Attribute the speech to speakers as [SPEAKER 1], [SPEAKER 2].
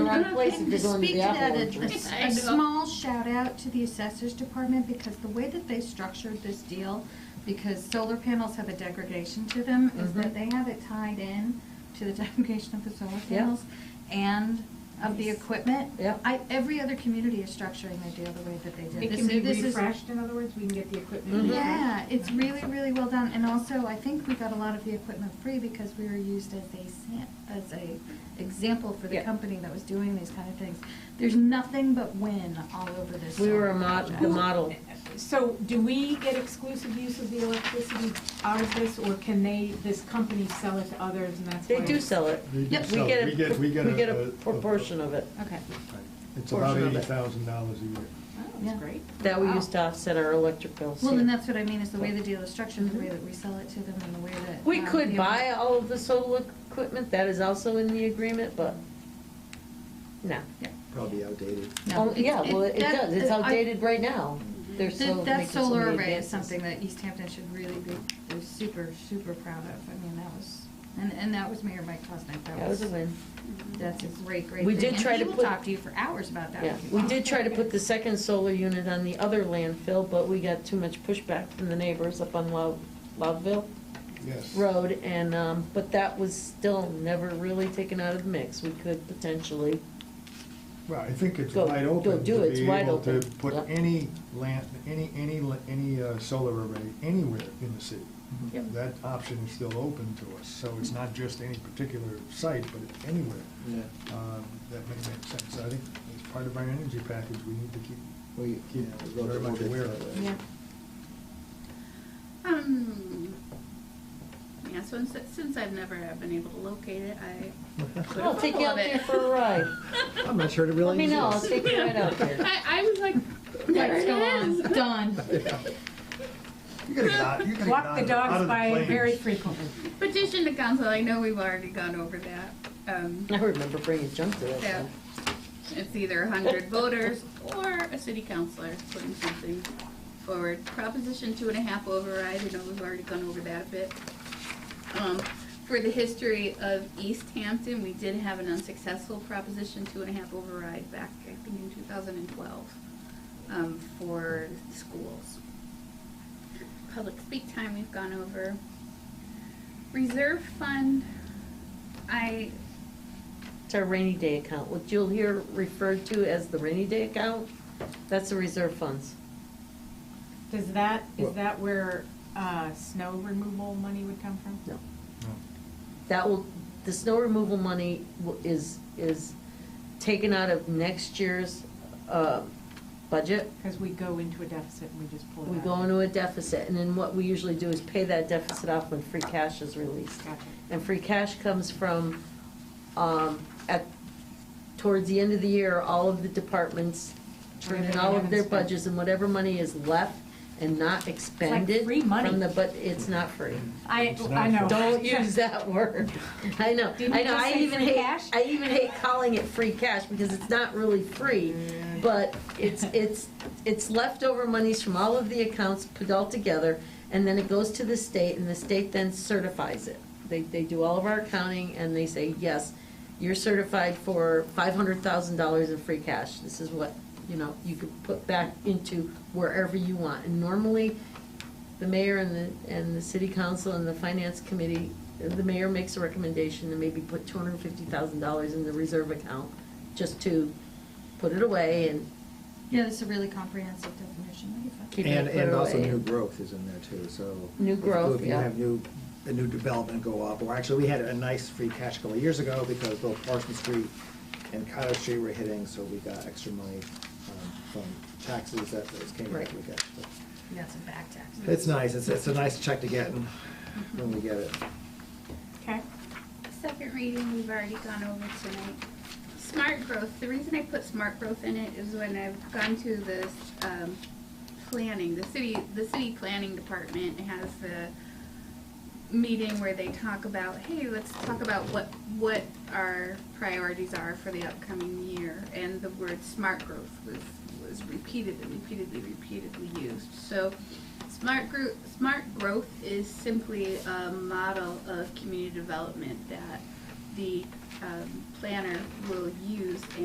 [SPEAKER 1] one
[SPEAKER 2] of-
[SPEAKER 1] place if
[SPEAKER 2] and
[SPEAKER 1] you're
[SPEAKER 2] to
[SPEAKER 1] going to
[SPEAKER 2] speak
[SPEAKER 1] the
[SPEAKER 2] to that,
[SPEAKER 1] outdoor
[SPEAKER 2] a-
[SPEAKER 1] drink.
[SPEAKER 2] a, a small shout out to the assessors department because the way that they structured this deal, because solar panels have a degradation to them, is that
[SPEAKER 1] Mm-hmm.
[SPEAKER 2] they have it tied in to the degradation of the solar
[SPEAKER 1] Yeah.
[SPEAKER 2] panels and of the
[SPEAKER 3] Nice.
[SPEAKER 2] equipment.
[SPEAKER 1] Yeah.
[SPEAKER 2] I, every other community is structuring their deal the way that they did.
[SPEAKER 3] It
[SPEAKER 2] This
[SPEAKER 3] can be
[SPEAKER 2] is- this is- Mm-hmm.
[SPEAKER 3] refreshed, in other words, we can get the equipment.
[SPEAKER 1] Mhm.
[SPEAKER 3] back.
[SPEAKER 2] Yeah, it's really, really well done, and also, I think we got a lot of the equipment free because we were used as a, sam- as a example for the
[SPEAKER 1] Yeah.
[SPEAKER 2] company that was doing these kind of things. There's nothing but win all over this.
[SPEAKER 1] We were
[SPEAKER 2] solar
[SPEAKER 1] a mod,
[SPEAKER 2] project.
[SPEAKER 1] the model.
[SPEAKER 3] So do we get exclusive use of the electricity out of this, or can they, this company sell it to others and that's why?
[SPEAKER 1] They do sell it.
[SPEAKER 4] They do
[SPEAKER 1] Yep,
[SPEAKER 4] sell it.
[SPEAKER 1] we get a, we get
[SPEAKER 4] a-
[SPEAKER 1] a proportion of it
[SPEAKER 2] Okay,
[SPEAKER 4] It's about
[SPEAKER 1] portion of
[SPEAKER 4] eighty
[SPEAKER 1] it.
[SPEAKER 4] thousand dollars a year.
[SPEAKER 3] Oh,
[SPEAKER 2] Yeah.
[SPEAKER 3] that's great.
[SPEAKER 1] that we
[SPEAKER 3] Wow.
[SPEAKER 1] use to offset our electric bills.
[SPEAKER 2] well, then that's what I mean, is the way the deal is structured, the way that we sell it to them, and the way that.
[SPEAKER 1] Mm-hmm. We
[SPEAKER 2] um,
[SPEAKER 1] could
[SPEAKER 2] the-
[SPEAKER 1] buy all of the solar equipment, that is also in the agreement, but, no.
[SPEAKER 5] Probably outdated.
[SPEAKER 2] No.
[SPEAKER 1] Oh, yeah, well, it
[SPEAKER 2] that-
[SPEAKER 1] does, it's
[SPEAKER 2] I-
[SPEAKER 1] outdated right now. There's
[SPEAKER 2] Th-
[SPEAKER 1] so.
[SPEAKER 2] That
[SPEAKER 1] making so
[SPEAKER 2] solar
[SPEAKER 1] many
[SPEAKER 2] array is
[SPEAKER 1] advances.
[SPEAKER 2] something that East Hampton should really be, be super, super proud of. I mean, that was, and, and that was Mayor Mike Klosnick.
[SPEAKER 1] That was a win.
[SPEAKER 2] That's a great, great
[SPEAKER 1] We
[SPEAKER 2] thing.
[SPEAKER 1] did
[SPEAKER 2] And
[SPEAKER 1] try to
[SPEAKER 2] he
[SPEAKER 1] put-
[SPEAKER 2] will talk to you for hours about that.
[SPEAKER 1] Yeah,
[SPEAKER 2] if you
[SPEAKER 1] we
[SPEAKER 2] want.
[SPEAKER 1] did try to put the second solar unit on the other landfill, but we got too much pushback from the neighbors up on Love, Loveville
[SPEAKER 4] Yes.
[SPEAKER 1] Road, and, um, but that was still never really taken out of the mix. We could potentially,
[SPEAKER 4] Well, I think it's
[SPEAKER 1] Go-
[SPEAKER 4] wide
[SPEAKER 1] go
[SPEAKER 4] open
[SPEAKER 1] do it.
[SPEAKER 4] to
[SPEAKER 1] It's
[SPEAKER 4] be
[SPEAKER 1] wide
[SPEAKER 4] able to
[SPEAKER 1] open.
[SPEAKER 4] put
[SPEAKER 1] Yep.
[SPEAKER 4] any land, any, any, la- any uh, solar array anywhere in the city.
[SPEAKER 1] Yep.
[SPEAKER 4] That option is still open to us, so it's not just any particular site, but it's anywhere.
[SPEAKER 5] Yeah.
[SPEAKER 4] Um, That may make sense. I think as part of our energy package, we need to keep,
[SPEAKER 5] We, yeah,
[SPEAKER 4] keep
[SPEAKER 5] we'll
[SPEAKER 4] very
[SPEAKER 5] get- we'll
[SPEAKER 4] much
[SPEAKER 5] get
[SPEAKER 4] aware
[SPEAKER 5] to
[SPEAKER 4] of
[SPEAKER 5] that.
[SPEAKER 4] it.
[SPEAKER 2] Yeah.
[SPEAKER 6] Um, yeah, so since, since I've never have been able to locate it, I. put a
[SPEAKER 1] I'll oh, take you
[SPEAKER 6] photo of
[SPEAKER 1] out there
[SPEAKER 6] it.
[SPEAKER 1] for a ride.
[SPEAKER 5] I'm not sure it really
[SPEAKER 1] Let me know, I'll
[SPEAKER 5] exists.
[SPEAKER 1] take you right out there.
[SPEAKER 6] I, I was like, there
[SPEAKER 2] Lights
[SPEAKER 6] it
[SPEAKER 2] go on.
[SPEAKER 6] is.
[SPEAKER 2] Done.
[SPEAKER 4] You gotta get out, you gotta get
[SPEAKER 3] Walk
[SPEAKER 4] out
[SPEAKER 3] the
[SPEAKER 4] of the- out
[SPEAKER 3] dogs
[SPEAKER 4] of the
[SPEAKER 3] by
[SPEAKER 4] plains.
[SPEAKER 3] very frequently.
[SPEAKER 6] Petition to council, I know we've already gone over that. Um,
[SPEAKER 1] I remember bringing junk to that.
[SPEAKER 6] Yeah.
[SPEAKER 1] thing.
[SPEAKER 6] It's either hundred voters or a city councillor putting something forward. Proposition two and a half override, I know we've already gone over that a bit. Um, for the history of East Hampton, we did have an unsuccessful proposition two and a half override back, I think, in two thousand and twelve, um, for schools. Public speak time we've gone over. Reserve fund, I
[SPEAKER 1] It's our rainy day account, what you'll hear referred to as the rainy day account, that's the reserve funds.
[SPEAKER 3] Does that,
[SPEAKER 5] Well-
[SPEAKER 3] is that where uh, snow removal money would come from?
[SPEAKER 1] No.
[SPEAKER 4] No.
[SPEAKER 1] That will, the snow removal money wi- is, is taken out of next year's, uh, budget.
[SPEAKER 3] Because we go into a deficit and we just pull it out.
[SPEAKER 1] We go into a deficit, and then what we usually do is pay that deficit off when free cash is released.
[SPEAKER 3] Gotcha.
[SPEAKER 1] And free cash comes from, um, at, towards the end of the year, all of the departments turn in
[SPEAKER 3] Whatever
[SPEAKER 1] all
[SPEAKER 3] they
[SPEAKER 1] of their
[SPEAKER 3] haven't spent.
[SPEAKER 1] budgets, and whatever money is left and not expended
[SPEAKER 3] free money.
[SPEAKER 1] from the, but it's not free.
[SPEAKER 3] I,
[SPEAKER 4] It's
[SPEAKER 3] I know.
[SPEAKER 4] not-
[SPEAKER 1] Don't use that word. I know,
[SPEAKER 3] Didn't
[SPEAKER 1] I
[SPEAKER 3] you
[SPEAKER 1] know,
[SPEAKER 3] just
[SPEAKER 1] I
[SPEAKER 3] say
[SPEAKER 1] even
[SPEAKER 3] free
[SPEAKER 1] hate,
[SPEAKER 3] cash?
[SPEAKER 1] I even hate calling it free cash, because it's not really free, but it's, it's, it's leftover monies from all of the accounts put all together, and then it goes to the state, and the state then certifies it. They, they do all of our accounting, and they say, yes, you're certified for five hundred thousand dollars in free cash, this is what, you know, you could put back into wherever you want, and normally, the mayor and the, and the city council and the finance committee, the mayor makes a recommendation to maybe put two hundred and fifty thousand dollars in the reserve account, just to put it away and
[SPEAKER 2] Yeah, this is a really comprehensive definition. that you
[SPEAKER 1] keep
[SPEAKER 5] And,
[SPEAKER 1] it put
[SPEAKER 5] and also
[SPEAKER 1] away.
[SPEAKER 5] new growth is in there too, so.
[SPEAKER 1] New
[SPEAKER 5] if you-
[SPEAKER 1] growth,
[SPEAKER 5] If you
[SPEAKER 1] yeah.
[SPEAKER 5] have new, a new development go up, or actually, we had a nice free cash a couple of years ago because both Parsons Street and Cottage Street were hitting, so we got extra money um, from taxes that that came back.
[SPEAKER 1] Right.
[SPEAKER 5] we got. so.
[SPEAKER 2] found. That's a back tax.
[SPEAKER 5] It's nice, it's, it's a nice check to get and when we get it.
[SPEAKER 3] Okay.
[SPEAKER 6] Second reading, we've already gone over tonight. Smart growth, the reason I put smart growth in it is when I've gone to this, um, planning, the city, the city planning department has the meeting where they talk about, hey, let's talk about what, what our priorities are for the upcoming year. And the word smart growth was, was repeated and repeatedly, repeatedly used. So smart group, smart growth is simply a model of community development that the um, planner will use